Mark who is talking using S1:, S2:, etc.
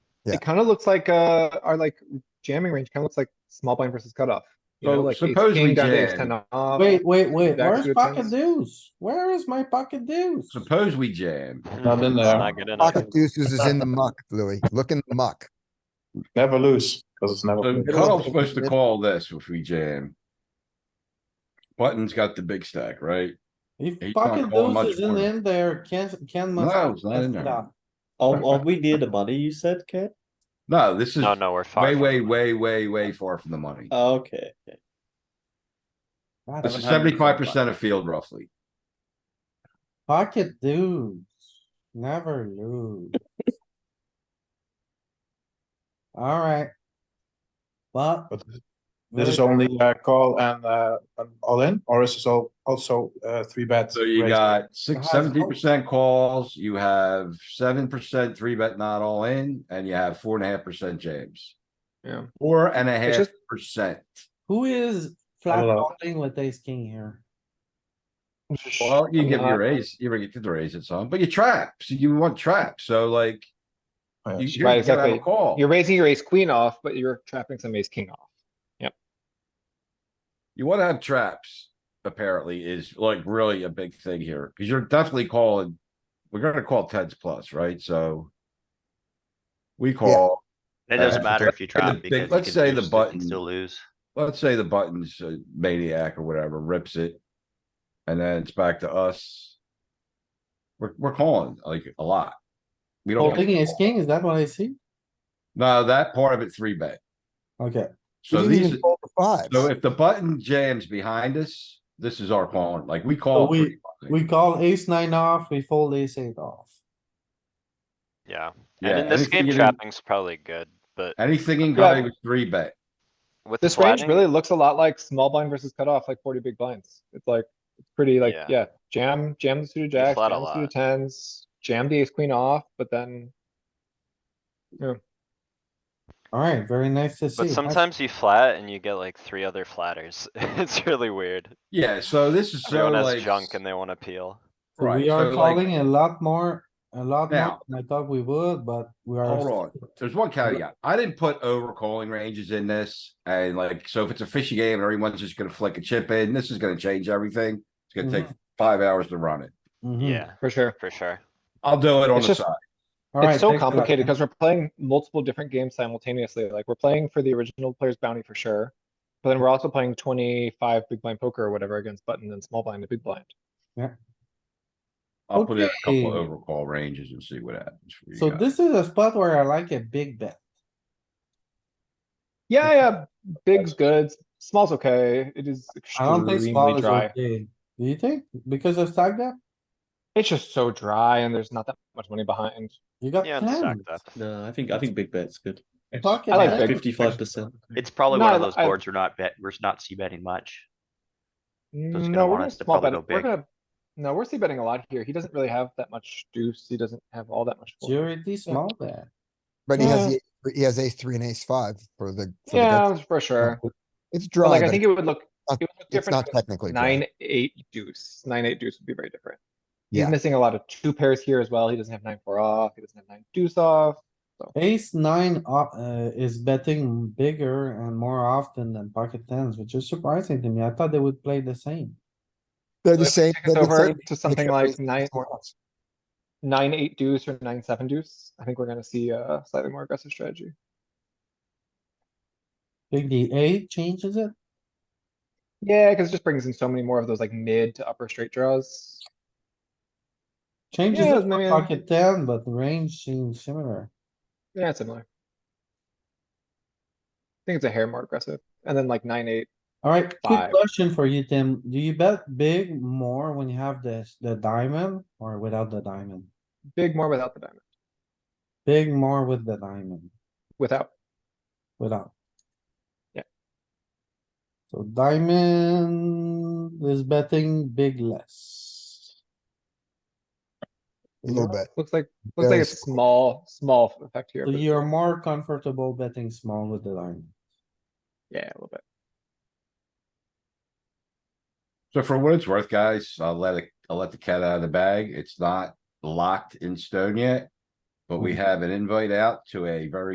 S1: Yeah.
S2: It kinda looks like, uh, our like jamming range kinda looks like small blind versus cutoff. You know,
S3: So
S2: like ace
S3: suppose we
S2: king down to ace
S3: jam.
S2: ten off.
S4: Wait, wait,
S2: Back
S4: wait,
S2: to
S4: where's
S2: the
S4: pocket
S2: tens.
S4: deuce? Where is my pocket deuce?
S3: Suppose we jam.
S5: Not in
S6: It's
S5: there.
S6: Not good enough.
S1: Pocket deuces is in the muck, Louis. Look in the muck.
S5: Never lose, because it's never.
S3: So
S5: good.
S3: Carl's supposed to call this if we jam. Button's got the big stack, right?
S4: If
S3: He can't
S4: pocket
S3: call much
S4: deuce isn't
S3: more.
S4: in there, Ken, Ken must.
S3: No, it's not in
S4: must
S3: there.
S4: stop.
S7: Are, are we near the money you said, Ken?
S3: No, this is
S6: No, no, we're far.
S3: way,
S6: from
S3: way,
S6: it.
S3: way, way, way far from the money.
S4: Uh,
S7: Okay. okay.
S4: God,
S3: This is seventy-five percent of field roughly.
S4: Pocket deuce, never lose. Alright. But
S5: But This is only uh, call and uh, um, all in, or is this all also uh, three bets?
S3: So you
S5: raised?
S3: got six,
S4: Guys,
S3: seventy percent calls, you have seven percent three bet not all in, and you have four and a half percent jams.
S2: Yeah.
S3: Four and a half
S2: just-
S3: percent.
S4: who is flat
S5: Hello.
S4: calling with ace king here?
S3: Well, you give
S2: Uh,
S3: your raise, you get to raise it some, but you trap, so you want trap, so like.
S2: Oh,
S3: You
S5: Yeah.
S2: Right,
S3: you gotta have a
S2: exactly.
S3: call.
S2: You're raising your ace queen off, but you're trapping some ace king off.
S3: You wanna have traps, apparently, is like really a big thing here, cuz you're definitely calling. We're gonna call tens plus, right? So. We call,
S6: It doesn't
S3: Uh,
S6: matter if you
S3: the
S6: drop
S3: big-
S6: because you
S3: let's
S6: can
S3: say
S6: do
S3: the
S6: still- you
S3: button-
S6: can Still lose.
S3: let's say the button's a maniac or whatever, rips it. And then it's back to us. We're, we're calling like a lot. We don't,
S4: Holding
S3: wanna
S4: ace
S3: call.
S4: king, is that what I see?
S3: no, that part of it three bet.
S4: Okay,
S1: We
S3: So
S1: didn't
S3: these,
S1: even fold the
S3: so
S1: fives.
S3: if the button jams behind us, this is our calling, like we call.
S4: we-
S3: pretty much.
S4: we call ace nine off, we fold ace eight off.
S6: Yeah.
S3: Yeah,
S6: And in this
S3: anything
S6: game,
S3: you do-
S6: trapping's probably good, but
S3: Anything in
S2: Yeah.
S3: guy with three bet.
S6: with
S2: This range
S6: flattening-
S2: really looks a lot like small blind versus cutoff, like forty big blinds. It's like, it's pretty like,
S6: Yeah.
S2: yeah, jam, jam the suited jacks,
S6: flat a
S2: jam the suited
S6: lot.
S2: tens, jam the ace queen off, but then.
S4: Alright, very nice to see.
S6: But
S4: Nice-
S6: sometimes you flat and you get like three other flatters. It's really weird.
S3: Yeah, so this is so
S6: Everyone
S3: like.
S6: has junk and they wanna peel.
S4: So
S3: right,
S4: We are
S3: so, like,
S4: calling a lot more, a lot more
S3: Now-
S4: than I thought we would, but we are.
S3: Hold on, there's one caveat. I didn't put over calling ranges in this and like, so if it's a fishy game and everyone's just gonna flick a chip in, this is gonna change everything. It's gonna take
S4: Mm-hmm.
S3: five hours to run it.
S4: Mhm.
S6: Yeah,
S2: For sure.
S6: for sure.
S3: I'll do it on
S2: It's
S3: the
S2: just-
S3: side.
S4: Alright,
S2: It's so
S4: thanks a lot,
S2: complicated
S4: man.
S2: because we're playing multiple different games simultaneously. Like we're playing for the original player's bounty for sure. But then we're also playing twenty-five big blind poker or whatever against button and small blind and big blind.
S3: I'll put in a couple
S4: Okay.
S3: over call ranges and see what happens. for you
S4: So
S3: guys.
S4: this is a spot where I like a big bet.
S2: Yeah, yeah, big's good, small's okay. It is
S4: I don't think small
S2: extremely dry.
S4: is okay. Do you think? Because of stack depth?
S2: It's just so dry and there's not that much money behind.
S4: You got
S6: Yeah, and stacked
S4: ten.
S6: up.
S7: No, I think I think big bet's good.
S4: Pocket
S2: I like
S4: bet.
S2: big.
S7: Fifty-five percent.
S8: It's probably one
S2: No,
S8: of those
S2: I-
S8: boards we're not bet, we're not c betting much. gonna
S2: No, we're
S8: want
S2: gonna
S8: us to
S2: small
S8: probably
S2: bet. it.
S8: go
S2: We're
S8: big.
S2: gonna, no, we're c betting a lot here. He doesn't really have that much deuce. He doesn't have all that much. fold.
S4: Purity small bet.
S1: But he has, the- he has ace three and ace five for the. for the
S2: Yeah,
S1: gut.
S2: for sure.
S1: It's
S2: But
S1: dry,
S2: like, I
S1: but
S2: think
S1: it-
S2: it would look,
S1: not-
S2: it would look
S1: it's not
S2: different. with
S1: technically. dry.
S2: Nine, eight deuce. Nine, eight deuce would be very different. He's
S1: Yeah.
S2: missing a lot of two pairs here as well. He doesn't have nine, four off. He doesn't have nine deuce off.
S4: Ace nine o- uh, is betting bigger and more often than pocket tens, which is surprising to me. I thought they would play the same.
S1: They're the
S2: Let's
S1: same.
S2: take us
S1: they're the
S2: over
S1: same
S2: to something
S1: except
S2: like
S1: it's
S2: nine,
S1: more or less.
S2: nine, eight deuce or nine, seven deuce. I think we're gonna see a slightly more aggressive strategy.
S4: Think the eight changes it?
S2: Yeah, cuz it just brings in so many more of those like mid to upper straight draws.
S4: Changes
S2: Yeah,
S4: it for
S2: maybe-
S4: pocket ten, but the range seems similar.
S2: Yeah, it's similar. I think it's a hair more aggressive. And then like nine, eight,
S4: Alright, quick
S2: Five.
S4: question for you, Tim. Do you bet big more when you have this, the diamond or without the diamond?
S2: big more without the diamond,
S4: Big more with the diamond,
S2: without.
S4: without.
S2: Yeah.
S4: So diamond is betting big less.
S1: A little bit.
S2: Looks like, looks like
S1: Very
S2: a small, small effect here.
S4: So
S2: but-
S4: you're more comfortable betting small with the diamond.
S2: Yeah, a little bit.
S3: So for what it's worth, guys, I'll let it, I'll let the cat out of the bag. It's not locked in stone yet. But we have an invite out to a very